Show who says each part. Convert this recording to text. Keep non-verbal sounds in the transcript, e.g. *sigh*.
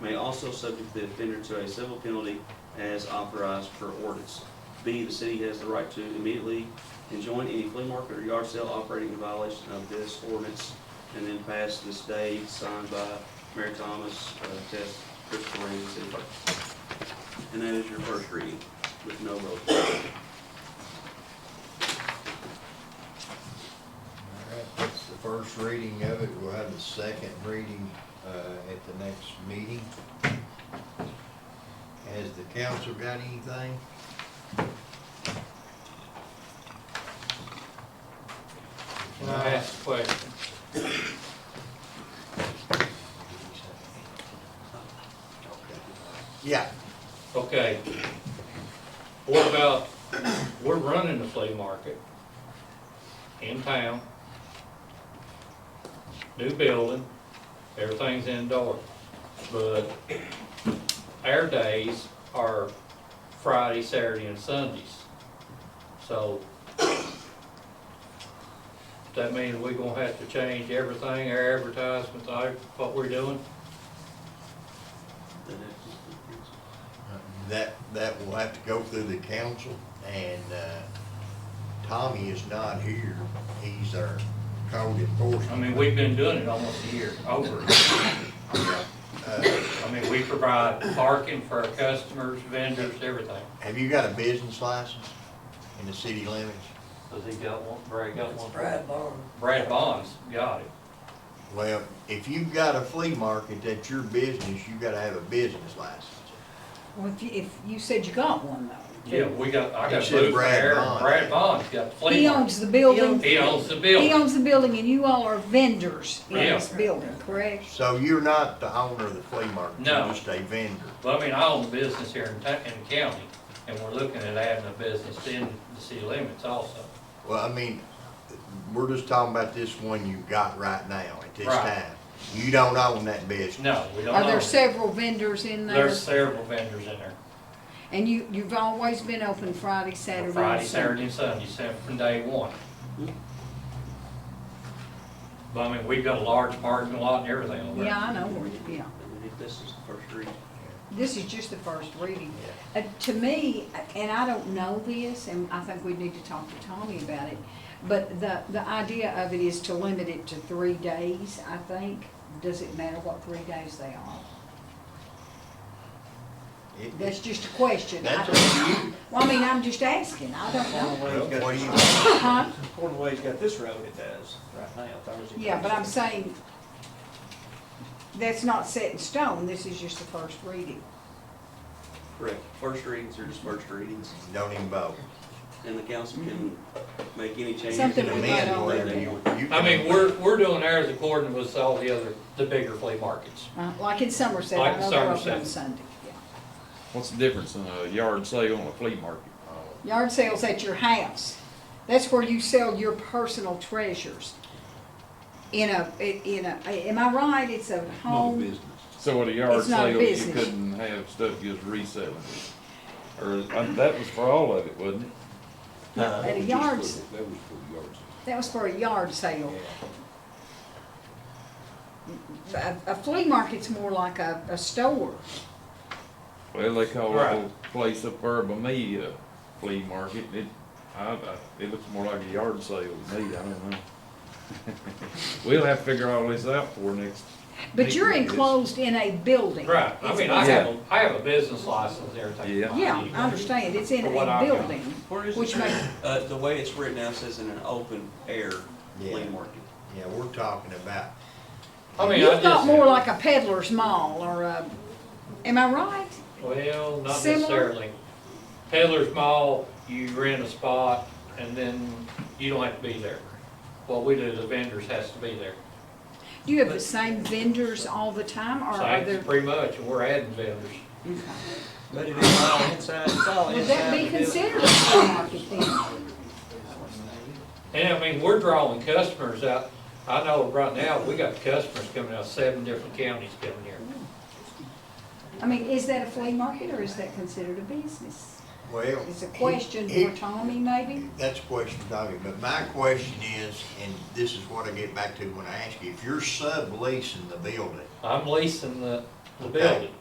Speaker 1: may also subject the offender to a civil penalty as authorized per ordinance. B, the city has the right to immediately enjoin any flea market or yard sale operating in violation of this ordinance, and then pass this day signed by Mayor Thomas, uh, Tess, Christopher, and the city clerk. And that is your first reading with no vote.
Speaker 2: All right, that's the first reading of it. We'll have the second reading uh, at the next meeting. Has the council got anything?
Speaker 3: Can I ask a question?
Speaker 2: Yeah.
Speaker 3: Okay. What about, we're running the flea market in town. New building, everything's indoor. But our days are Friday, Saturday, and Sundays. So does that mean we gonna have to change everything, our advertisements, our- what we're doing?
Speaker 2: That, that will have to go through the council, and uh, Tommy is not here. He's our code
Speaker 3: I
Speaker 2: enforcement.
Speaker 3: mean, we've been doing it almost a year, over.
Speaker 2: Uh,
Speaker 3: I mean, we provide parking for our customers, vendors, everything.
Speaker 2: Have you got a business license in the city limits?
Speaker 3: Does he got one, Brad got
Speaker 4: It's
Speaker 3: one?
Speaker 4: Brad Barnes.
Speaker 3: Brad Bonds got it.
Speaker 2: Well, if you've got a flea market that's your business, you gotta have a business license.
Speaker 5: Well, if you, if you said you got one though.
Speaker 3: Yeah, we got, I
Speaker 2: He
Speaker 3: got
Speaker 2: said
Speaker 3: blue
Speaker 2: Brad
Speaker 3: there, and
Speaker 2: Bond.
Speaker 3: Brad Bonds got the flea
Speaker 5: He
Speaker 3: market.
Speaker 5: owns the building,
Speaker 3: He owns the
Speaker 5: he
Speaker 3: building.
Speaker 5: owns the building and you all are vendors in
Speaker 3: Yeah.
Speaker 5: this building, correct?
Speaker 2: So you're not the owner of the flea market,
Speaker 3: No.
Speaker 2: you're just a vendor.
Speaker 3: Well, I mean, I own a business here in ta, in the county, and we're looking at adding a business in the city limits also.
Speaker 2: Well, I mean, we're just talking about this one you got right now at this
Speaker 3: Right.
Speaker 2: time. You don't own that business.
Speaker 3: No, we don't
Speaker 5: Are
Speaker 3: own
Speaker 5: there
Speaker 3: it.
Speaker 5: several vendors in there?
Speaker 3: There's several vendors in there,
Speaker 5: And you, you've always been open Friday, Saturday, and
Speaker 3: Friday,
Speaker 5: Sunday?
Speaker 3: Saturday, and Sunday, except from day one. But I mean, we've got a large parking lot and everything over there.
Speaker 5: Yeah, I know, where you- yeah.
Speaker 1: And if this is the first reading,
Speaker 5: This is just the first reading. Uh, to me, and I don't know this, and I think we need to talk to Tommy about it, but the, the idea of it is to limit it to three days, I think. Does it matter what three days they are?
Speaker 2: It-
Speaker 5: That's just a question. I
Speaker 2: That's
Speaker 5: don't-
Speaker 2: up to you.
Speaker 5: Well, I mean, I'm just asking, I don't know.
Speaker 6: Cornway's got,
Speaker 2: What do you,
Speaker 5: Huh?
Speaker 6: Cornway's got this road it does right now, Thursday.
Speaker 5: Yeah, but I'm saying, that's not set in stone, this is just the first reading.
Speaker 1: correct, first readings are just first readings,
Speaker 2: don't even vote.
Speaker 1: and the council can
Speaker 6: Mm-hmm.
Speaker 1: make any changes.
Speaker 5: Something
Speaker 1: that
Speaker 5: we
Speaker 1: they
Speaker 5: might
Speaker 1: want.
Speaker 5: already
Speaker 1: They
Speaker 5: know.
Speaker 1: want.
Speaker 2: You
Speaker 3: I
Speaker 2: can-
Speaker 3: mean, we're, we're doing ours according with all the other, the bigger flea markets.
Speaker 5: Uh, Like in Somerset,
Speaker 3: Like
Speaker 5: I
Speaker 3: in
Speaker 5: know they're open
Speaker 3: Somerset.
Speaker 5: on Sunday. yeah.
Speaker 7: What's the difference in a yard sale and a flea market?
Speaker 5: Yard sales at your house, that's where you sell your personal treasures. In a, in a, am I right, it's a
Speaker 2: Not a
Speaker 5: home,
Speaker 2: business.
Speaker 7: So at a yard
Speaker 5: It's not a
Speaker 7: sale, you
Speaker 5: business.
Speaker 7: couldn't have stuff you was reselling. Or, uh, that was for all of it, wasn't it?
Speaker 5: at a yard. s- That was for a yard sale. A, a flea market's more like a, a store.
Speaker 7: Well, they call the
Speaker 3: Right.
Speaker 7: whole place up there by me a flea market. It, I, I, it looks more like a yard sale to me, I don't know. *laughs* We'll have to figure all this out for next.
Speaker 5: But you're
Speaker 7: meeting, I guess.
Speaker 5: enclosed in a building.
Speaker 3: Right, I mean, I have,
Speaker 5: It's-
Speaker 3: a- I have a business license and everything.
Speaker 7: Yeah.
Speaker 5: Yeah, I understand, it's in
Speaker 3: For what
Speaker 5: a
Speaker 3: I've got.
Speaker 5: building,
Speaker 1: Where is
Speaker 5: which
Speaker 1: it?
Speaker 5: makes,
Speaker 1: Uh, the way it's written now says in an open air flea
Speaker 2: Yeah.
Speaker 1: market.
Speaker 2: Yeah, we're talking about,
Speaker 3: I mean, I
Speaker 5: you've got
Speaker 3: just,
Speaker 5: more
Speaker 3: well,
Speaker 5: like a peddler's mall or a, am I right?
Speaker 3: not
Speaker 5: Similar?
Speaker 3: necessarily. Peddler's Mall, you rent a spot and then you don't have to be there. What we do, the vendors has to be there.
Speaker 5: Do you have the same vendors all the time or are there?
Speaker 3: Same, pretty much, and we're adding vendors.
Speaker 6: But it is all inside, it's all inside.
Speaker 5: Would that
Speaker 6: the
Speaker 5: be
Speaker 6: building.
Speaker 5: considered a flea market then?
Speaker 3: And I mean, we're drawing customers out. I know right now, we got customers coming out, seven different counties coming here.
Speaker 5: I mean, is that a flea market or is that considered a business?
Speaker 2: well.
Speaker 5: It's a question
Speaker 2: it-
Speaker 5: for Tommy maybe?
Speaker 2: That's a question, Tommy, but my question is, and this is what I get back to when I ask you, if you're subleasing the building,
Speaker 3: I'm leasing the, the building.